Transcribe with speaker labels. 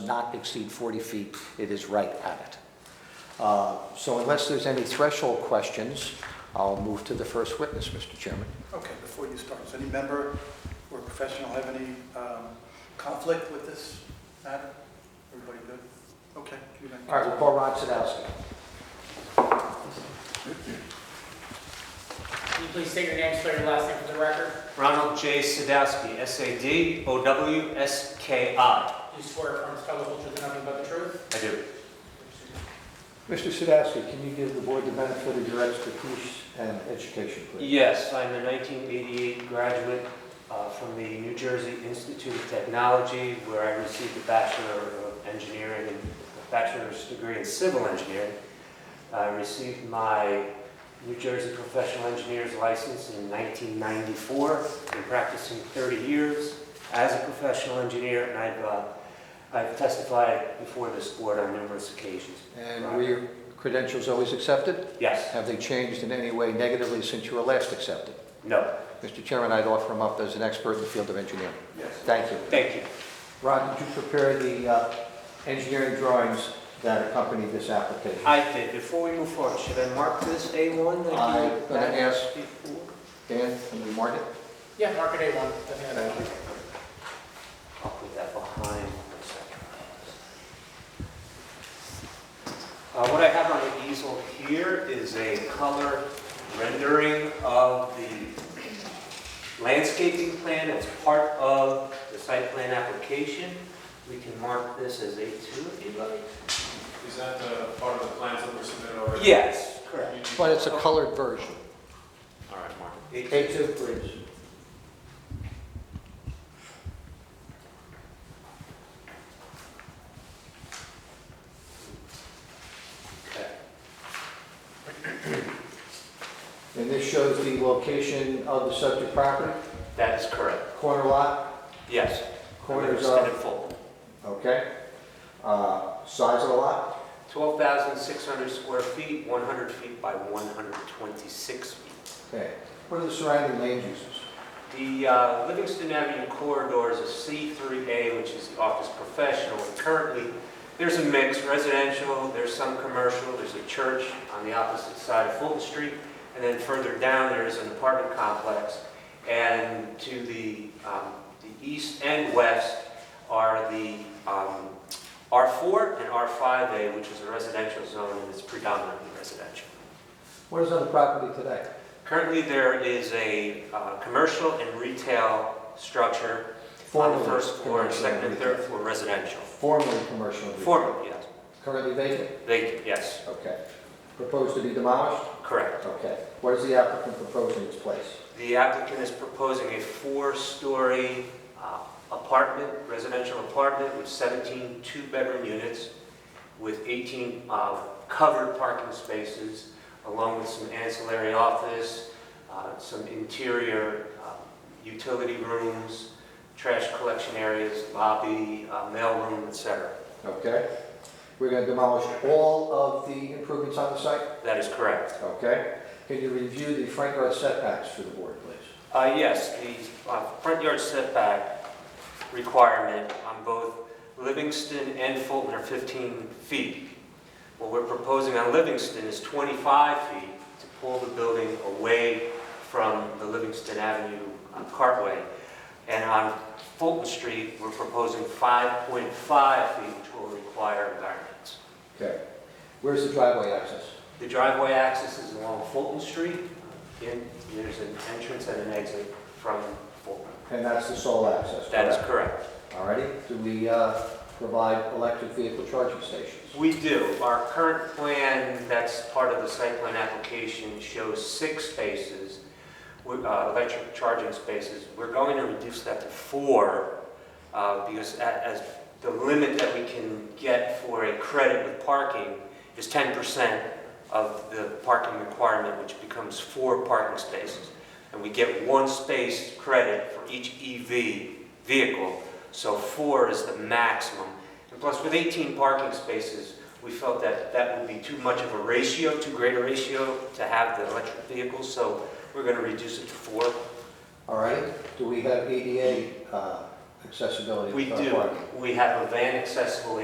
Speaker 1: not exceed 40 feet, it is right at it. Uh, So unless there's any threshold questions, I'll move to the first witness, Mr. Chairman.
Speaker 2: Okay, before you start, does any member or professional have any um, conflict with this matter? Everybody good? Okay. you may-
Speaker 1: All right, we'll call Rod Sadowski.
Speaker 3: Can you please state your name, spell your last name for the record?
Speaker 4: Ronald J. Sadowski, S-A-D-O-W-S-K-I.
Speaker 3: Do you swear affirm this fellow will truth and nothing but the truth?
Speaker 4: I do.
Speaker 1: Mr. Sadowski, can you give the board the benefit of your expertise and education, please?
Speaker 4: Yes, I'm a 1988 graduate uh, from the New Jersey Institute of Technology, where I received a Bachelor of Engineering and a bachelor's degree in civil engineering. I received my New Jersey Professional Engineer's License in 1994. Been practicing 30 years as a professional engineer, and I've, uh, I've testified before this board on numerous occasions.
Speaker 1: And were your credentials always accepted?
Speaker 4: Yes,
Speaker 1: Have they changed in any way negatively since you were last accepted?
Speaker 4: no,
Speaker 1: Mr. Chairman, I'd offer him up as an expert in the field of engineering.
Speaker 2: Yes.
Speaker 1: Thank you.
Speaker 4: thank you.
Speaker 1: Rod, did you prepare the uh, engineering drawings that accompany this application?
Speaker 4: I did. Before we move forward, should I mark this A1? like you-
Speaker 1: I'm gonna ask-
Speaker 4: before?
Speaker 1: Dan, can you mark it?
Speaker 3: Yeah, mark it A1. Doesn't matter.
Speaker 1: Thank you.
Speaker 4: I'll put that behind for a second. Uh, What I have on the easel here is a color rendering of the landscaping plan. It's part of the site plan application. We can mark this as A2 if you'd like.
Speaker 5: Is that the part of the plans that were submitted already?
Speaker 4: Yes, correct.
Speaker 5: You-
Speaker 1: But it's a colored version.
Speaker 5: All right, Mark.
Speaker 1: A2, please.
Speaker 4: Okay.
Speaker 1: And this shows the location of the subject property,
Speaker 4: That is correct.
Speaker 1: corner lot,
Speaker 4: Yes.
Speaker 1: corners
Speaker 4: Extended
Speaker 1: of,
Speaker 4: full.
Speaker 1: okay? Uh, Size of the lot,
Speaker 4: 12,600 square feet, 100 feet by 126 feet.
Speaker 1: okay. What are the surrounding land uses?
Speaker 4: The uh, Livingston Avenue corridor is a C3A, which is the office professional. Currently, there's a mix residential, there's some commercial, there's a church on the opposite side of Fulton Street, and then further down, there is an apartment complex. And to the, um, the east and west are the um, R4 and R5A, which is a residential zone, and it's predominantly residential.
Speaker 1: What is on the property today?
Speaker 4: Currently, there is a uh, commercial and retail structure on the
Speaker 1: Formerly
Speaker 4: first floor, and
Speaker 1: commercial
Speaker 4: second and
Speaker 1: retail.
Speaker 4: third floor residential.
Speaker 1: Formerly commercial. and retail.
Speaker 4: Formerly, yes.
Speaker 1: Currently vacant?
Speaker 4: They, yes,
Speaker 1: Okay. Proposed to be demolished?
Speaker 4: correct.
Speaker 1: Okay. What is the applicant proposing in its place?
Speaker 4: The applicant is proposing a four-story uh, apartment, residential apartment with 17 two-bedroom units with 18 uh, covered parking spaces, along with some ancillary office, uh, some interior uh, utility rooms, trash collection areas, lobby, uh, mailroom, et cetera.
Speaker 1: Okay? We're going to demolish all of the improvements on the site?
Speaker 4: That is correct.
Speaker 1: Okay? Can you review the front yard setbacks for the board, please?
Speaker 4: Uh, Yes, the uh, front yard setback requirement on both Livingston and Fulton are 15 feet. What we're proposing on Livingston is 25 feet to pull the building away from the Livingston Avenue uh, cartway. And on Fulton Street, we're proposing 5.5 feet, which will require environments.
Speaker 1: Okay. Where's the driveway access?
Speaker 4: The driveway access is along Fulton Street, and there's an entrance and an exit from Fulton.
Speaker 1: And that's the sole access,
Speaker 4: That is
Speaker 1: correct?
Speaker 4: correct.
Speaker 1: All righty. Do we uh, provide electric vehicle charging stations?
Speaker 4: We do. Our current plan, that's part of the site plan application, shows six spaces, with, uh, electric charging spaces. We're going to reduce that to four uh, because a- as the limit that we can get for a credit with parking is 10% of the parking requirement, which becomes four parking spaces. And we get one space credit for each EV vehicle, so four is the maximum. And plus, with 18 parking spaces, we felt that that would be too much of a ratio, too great a ratio to have the electric vehicles, so we're going to reduce it to four.
Speaker 1: All righty. Do we have ADA uh, accessibility?
Speaker 4: We
Speaker 1: for
Speaker 4: do,
Speaker 1: parking?
Speaker 4: we have a van accessible